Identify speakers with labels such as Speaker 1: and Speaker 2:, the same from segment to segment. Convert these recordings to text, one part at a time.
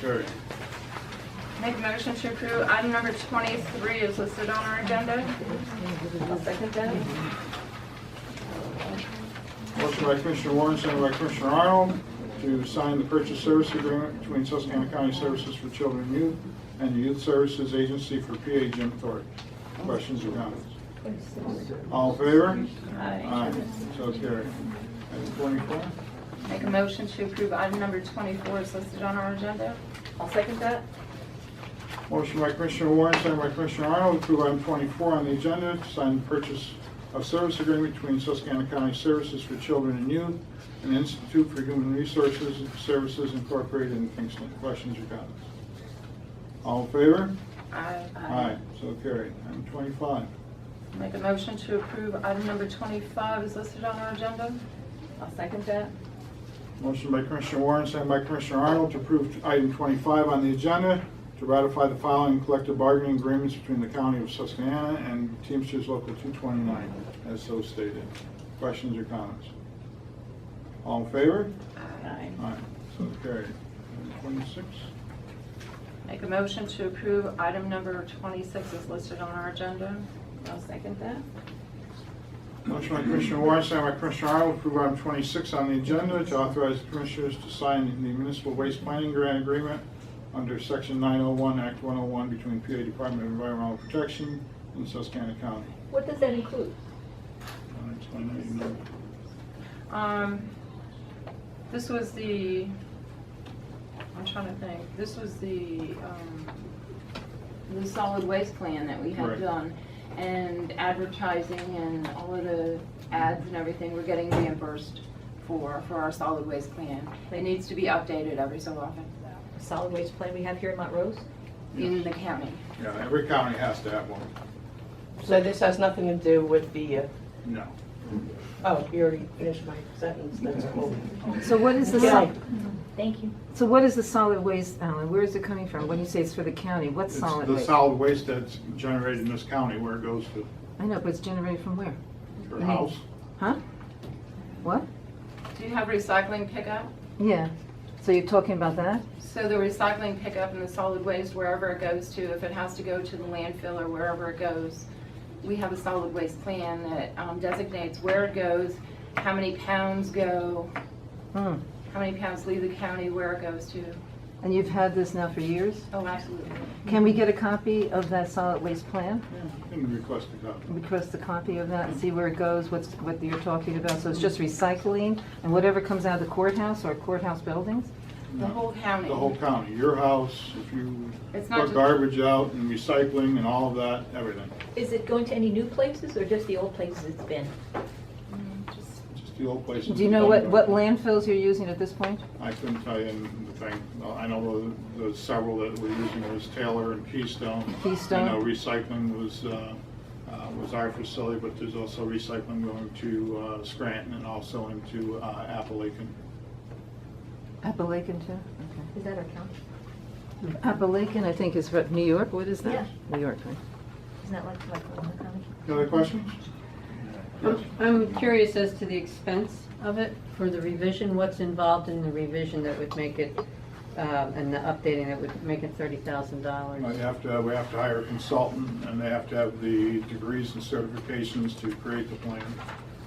Speaker 1: Carried.
Speaker 2: Make a motion to approve item number 23 is listed on our agenda. I'll second that.
Speaker 1: Motion by Commissioner Warren, second by Commissioner Arnold, to sign the purchase service agreement between Susquehanna County Services for Children and Youth and the Youth Services Agency for PA Jim Thorpe. Questions or comments? All in favor?
Speaker 2: Aye.
Speaker 1: So carried. Item 24.
Speaker 2: Make a motion to approve item number 24 is listed on our agenda. I'll second that.
Speaker 1: Motion by Commissioner Warren, second by Commissioner Arnold, to approve item 24 on the agenda, to sign the purchase of service agreement between Susquehanna County Services for Children and Youth and Institute for Human Resources and Services Incorporated in Kingston. Questions or comments? All in favor?
Speaker 2: Aye.
Speaker 1: So carried. Item 25.
Speaker 2: Make a motion to approve item number 25 is listed on our agenda. I'll second that.
Speaker 1: Motion by Commissioner Warren, second by Commissioner Arnold, to approve item 25 on the agenda, to ratify the following collective bargaining agreements between the County of Susquehanna and Teamsters Local 229, as so stated. Questions or comments? All in favor?
Speaker 2: Aye.
Speaker 1: Aye, so carried. Item 26.
Speaker 2: Make a motion to approve item number 26 is listed on our agenda. I'll second that.
Speaker 1: Motion by Commissioner Warren, second by Commissioner Arnold, to approve item 26 on the agenda, to authorize the Commissioners to sign the municipal waste planning grant agreement under Section 901, Act 101, between PA Department of Environmental Protection and Susquehanna County.
Speaker 3: What does that include?
Speaker 1: I'll explain that in a minute.
Speaker 2: Um, this was the, I'm trying to think, this was the, um, the solid waste plan that we
Speaker 1: Right.
Speaker 2: had done. And advertising and all of the ads and everything, we're getting reimbursed for, for our solid waste plan. It needs to be updated every so often
Speaker 3: Solid waste plan we have here in Montrose?
Speaker 2: in the county.
Speaker 1: Yeah, every county has to have one.
Speaker 4: So this has nothing to do with the, uh,
Speaker 1: No.
Speaker 4: oh, you already finished my sentence, that's cool.
Speaker 5: So what is the,
Speaker 4: Yeah.
Speaker 5: sol-
Speaker 3: Thank you.
Speaker 5: so what is the solid waste, Alan? Where is it coming from? When you say it's for the county, what's
Speaker 1: It's
Speaker 5: solid
Speaker 1: the
Speaker 5: waste?
Speaker 1: solid waste that's generated in this county where it goes to
Speaker 5: I know, but it's generated from where?
Speaker 1: your house.
Speaker 5: Huh? What?
Speaker 2: Do you have recycling pickup?
Speaker 5: Yeah. So you're talking about that?
Speaker 2: So the recycling pickup and the solid waste, wherever it goes to, if it has to go to the landfill or wherever it goes, we have a solid waste plan that um, designates where it goes, how many pounds go,
Speaker 5: Hmm.
Speaker 2: how many pounds leave the county, where it goes to.
Speaker 5: And you've had this now for years?
Speaker 2: Oh, absolutely.
Speaker 5: Can we get a copy of that solid waste plan?
Speaker 1: Yeah, You can request a copy.
Speaker 5: Request a copy of that and see where it goes, what's, what you're talking about? So it's just recycling and whatever comes out of the courthouse or courthouse buildings?
Speaker 2: The whole county.
Speaker 1: The whole county, your house, if you
Speaker 2: It's not
Speaker 1: put
Speaker 2: just-
Speaker 1: garbage out and recycling and all of that, everything,
Speaker 3: Is it going to any new places or just the old places it's been?
Speaker 2: Mm, just-
Speaker 1: just the old places.
Speaker 5: Do you know what, what landfills you're using at this point?
Speaker 1: I couldn't tell you in the thing, No, I know the, the several that we're using was Taylor and Keystone.
Speaker 5: Keystone.
Speaker 1: I know recycling was, uh, uh, was our facility, but there's also recycling going to uh, Scranton and also into uh, Appalachian.
Speaker 5: Appalachian too? Okay.
Speaker 3: Is that our county?
Speaker 5: Appalachian, I think, is from New York. What is that?
Speaker 3: Yeah.
Speaker 5: New York, right?
Speaker 3: Isn't that like, like Oklahoma County?
Speaker 1: Any other questions? Yes.
Speaker 6: I'm curious as to the expense of it for the revision, what's involved in the revision that would make it, um, and the updating that would make it thirty thousand
Speaker 1: Well,
Speaker 6: dollars?
Speaker 1: You have to, we have to hire a consultant, and they have to have the degrees and certifications to create the plan,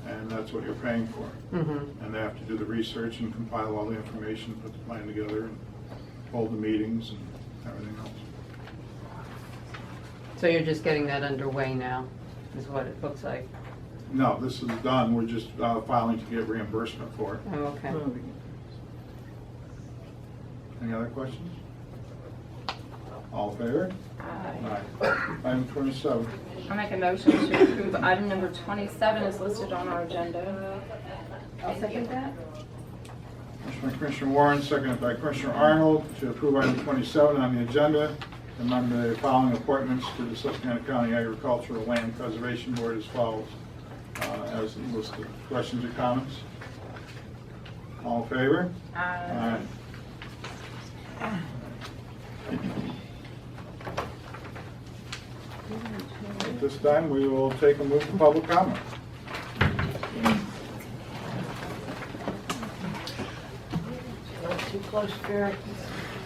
Speaker 1: and that's what you're paying for.
Speaker 6: Mm-hmm.
Speaker 1: And they have to do the research and compile all the information, put the plan together, and hold the meetings and everything else.
Speaker 6: So you're just getting that underway now, is what it looks like?
Speaker 1: No, this is done, we're just uh, filing to get reimbursement for it.
Speaker 6: Oh, okay.
Speaker 1: Hmm. Any other questions? All in favor?
Speaker 2: I
Speaker 1: Aye. Item 27.
Speaker 2: I make a motion to approve item number 27 is listed on our agenda. I'll second that.
Speaker 1: Motion by Commissioner Warren, seconded by Commissioner Arnold, to approve item 27 on the agenda, among the following appointments to the Susquehanna County Agricultural Land Preservation Board as follows, uh, as listed. Questions or comments? All in favor?
Speaker 2: Aye.
Speaker 1: At this time, we will take a move to public comment.
Speaker 4: Not too close, Jerry.